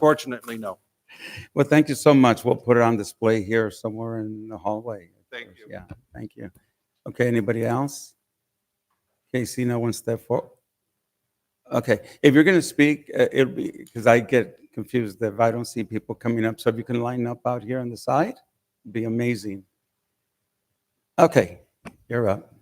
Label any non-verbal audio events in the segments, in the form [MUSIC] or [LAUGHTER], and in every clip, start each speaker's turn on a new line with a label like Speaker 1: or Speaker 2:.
Speaker 1: Unfortunately, no.
Speaker 2: Well, thank you so much. We'll put it on display here somewhere in the hallway. of
Speaker 1: Thank
Speaker 2: course.
Speaker 1: you.
Speaker 2: Yeah, thank you. Okay, anybody else? Okay, see no one step forward. Okay, if you're going to speak, uh, it'll be, because I get confused if I don't see people coming up. So if you can line up out here on the side, it'd be amazing. Okay, you're up.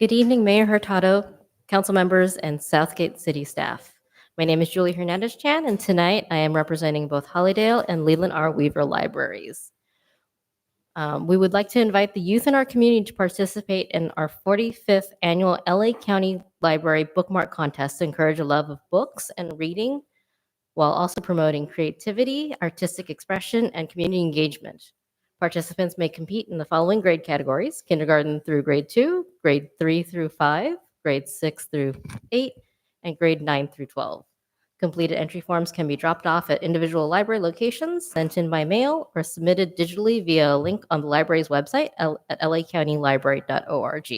Speaker 3: Good evening, Mayor Hurtado, council members, and Southgate city staff. My name is Julie Hernandez Chan, and tonight I am representing both Hollydale and Leland R. Weaver Libraries. Um, We would like to invite the youth in our community to participate in our 45th Annual LA County Library Bookmark Contest to encourage a love of books and reading while also promoting creativity, artistic expression, and community engagement. Participants may compete in the following grade categories: kindergarten through grade two, grade three through five, grade six through eight, and grade nine through 12. Completed entry forms can be dropped off at individual library locations, sent in by mail, or submitted digitally via a link on the library's website L- at lacountylibrary.org.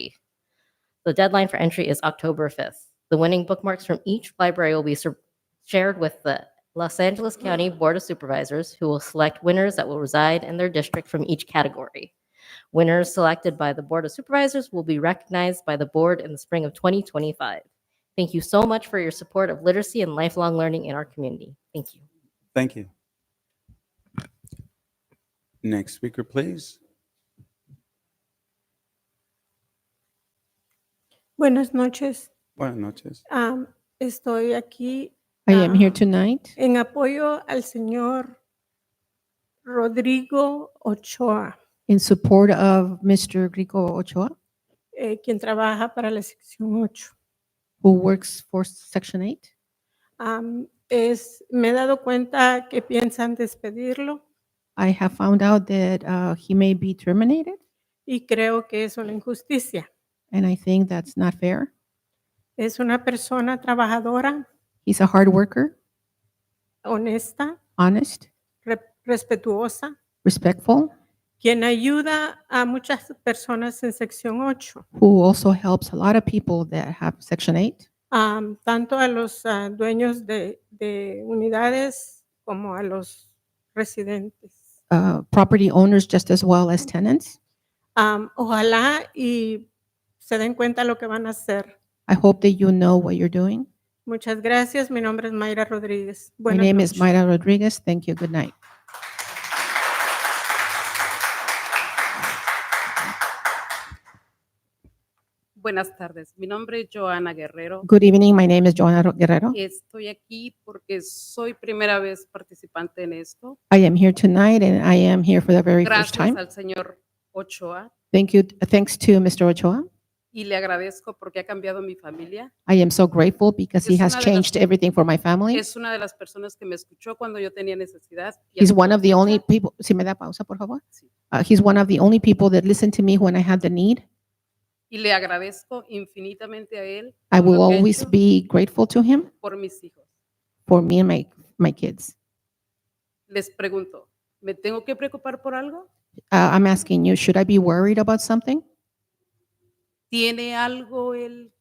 Speaker 3: The deadline for entry is October 5th. The winning bookmarks from each library will be sur- shared with the Los Angeles County Board of Supervisors, who will select winners that will reside in their district from each category. Winners selected by the Board of Supervisors will be recognized by the board in the spring of 2025. Thank you so much for your support of literacy and lifelong learning in our community. Thank you.
Speaker 2: Thank you. Next speaker, please.
Speaker 4: Buenas noches.
Speaker 2: Buenas noches.
Speaker 4: Am, estoy aquí
Speaker 5: I am
Speaker 4: Ah.
Speaker 5: here tonight
Speaker 4: en apoyo al señor Rodrigo Ochoa,
Speaker 5: in support of Mr. Rico Ochoa,
Speaker 4: eh, quien trabaja para la sección 8.
Speaker 5: who works for Section 8.
Speaker 4: Am, es, me he dado cuenta que piensan despedirlo
Speaker 5: I have found out that uh, he may be terminated,
Speaker 4: y creo que es una injusticia.
Speaker 5: and I think that's not fair.
Speaker 4: Es una persona trabajadora,
Speaker 5: He's a hard worker,
Speaker 4: honesta,
Speaker 5: honest,
Speaker 4: re- respetuosa,
Speaker 5: respectful,
Speaker 4: quien ayuda a muchas personas en sección 8.
Speaker 5: who also helps a lot of people that have Section 8,
Speaker 4: am, tanto a los ah, dueños de, de unidades como a los residentes.
Speaker 5: uh, property owners just as well as tenants.
Speaker 4: Am, ojalá y se den cuenta lo que van a hacer.
Speaker 5: I hope that you know what you're doing.
Speaker 4: Muchas gracias. Mi nombre es Mayra Rodríguez.
Speaker 5: My
Speaker 4: Buenas
Speaker 5: name is
Speaker 4: noches.
Speaker 5: Mayra Rodriguez. Thank you. Good night.
Speaker 6: Buenas tardes, mi nombre es Joana Guerrero.
Speaker 5: Good evening. My name is Joanna Ro- Guerrero.
Speaker 6: Estoy aquí porque soy primera vez participante en esto.
Speaker 5: I am here tonight, and I am here for the very first
Speaker 6: Gracias
Speaker 5: time.
Speaker 6: al señor Ochoa
Speaker 5: Thank you. Thanks to Mr. Ochoa.
Speaker 6: y le agradezco porque ha cambiado mi familia.
Speaker 5: I am so grateful because he
Speaker 6: Es
Speaker 5: has
Speaker 6: una de las-
Speaker 5: changed everything for my family.
Speaker 6: Es una de las personas que me escuchó cuando yo tenía necesidad. y
Speaker 5: He's
Speaker 6: hasta
Speaker 5: one
Speaker 6: la
Speaker 5: of the only
Speaker 6: fecha
Speaker 5: people, si me da pausa, por favor.
Speaker 6: Sí.
Speaker 5: Uh, he's one of the only people that listened to me when I had the need.
Speaker 6: Y le agradezco infinitamente a él
Speaker 5: I
Speaker 6: por
Speaker 5: will
Speaker 6: lo que ha
Speaker 5: always
Speaker 6: hecho
Speaker 5: be grateful to him
Speaker 6: por mis hijos.
Speaker 5: for me and my, my kids.
Speaker 6: Les pregunto, ¿me tengo que preocupar por algo?
Speaker 5: Uh, I'm asking you, should I be worried about something?
Speaker 6: ¿Tiene algo él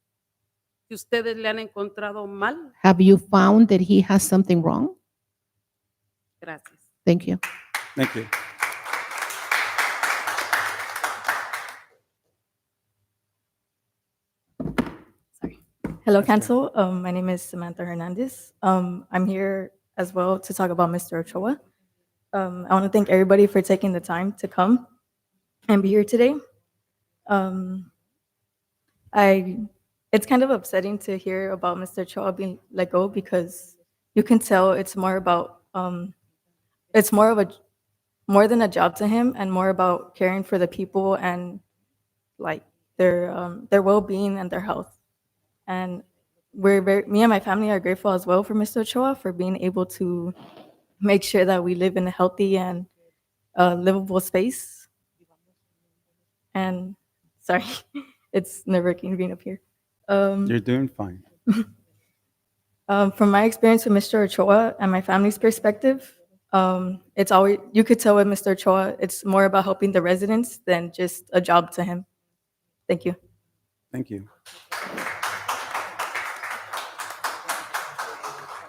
Speaker 6: que ustedes le han encontrado mal?
Speaker 5: Have you found that he has something wrong?
Speaker 6: Gracias.
Speaker 5: Thank you.
Speaker 2: Thank you.
Speaker 7: Hello,
Speaker 2: That's right.
Speaker 7: Council. Um, my name is Samantha Hernandez. Um, I'm here as well to talk about Mr. Ochoa. Um, I want to thank everybody for taking the time to come and be here today. Um, I, it's kind of upsetting to hear about Mr. Ochoa being let go because you can tell it's more about, um, it's more of a, more than a job to him and more about caring for the people and like their, um, their well-being and their health. And we're very, me and my family are grateful as well for Mr. Ochoa for being able to make sure that we live in a healthy and uh, livable space. And sorry, [LAUGHS] it's nerve wracking being up here. Um,
Speaker 2: You're doing fine.
Speaker 7: um, from my experience with Mr. Ochoa and my family's perspective, um, it's always you could tell with Mr. Ochoa, it's more about helping the residents than just a job to him. Thank you.
Speaker 2: Thank you.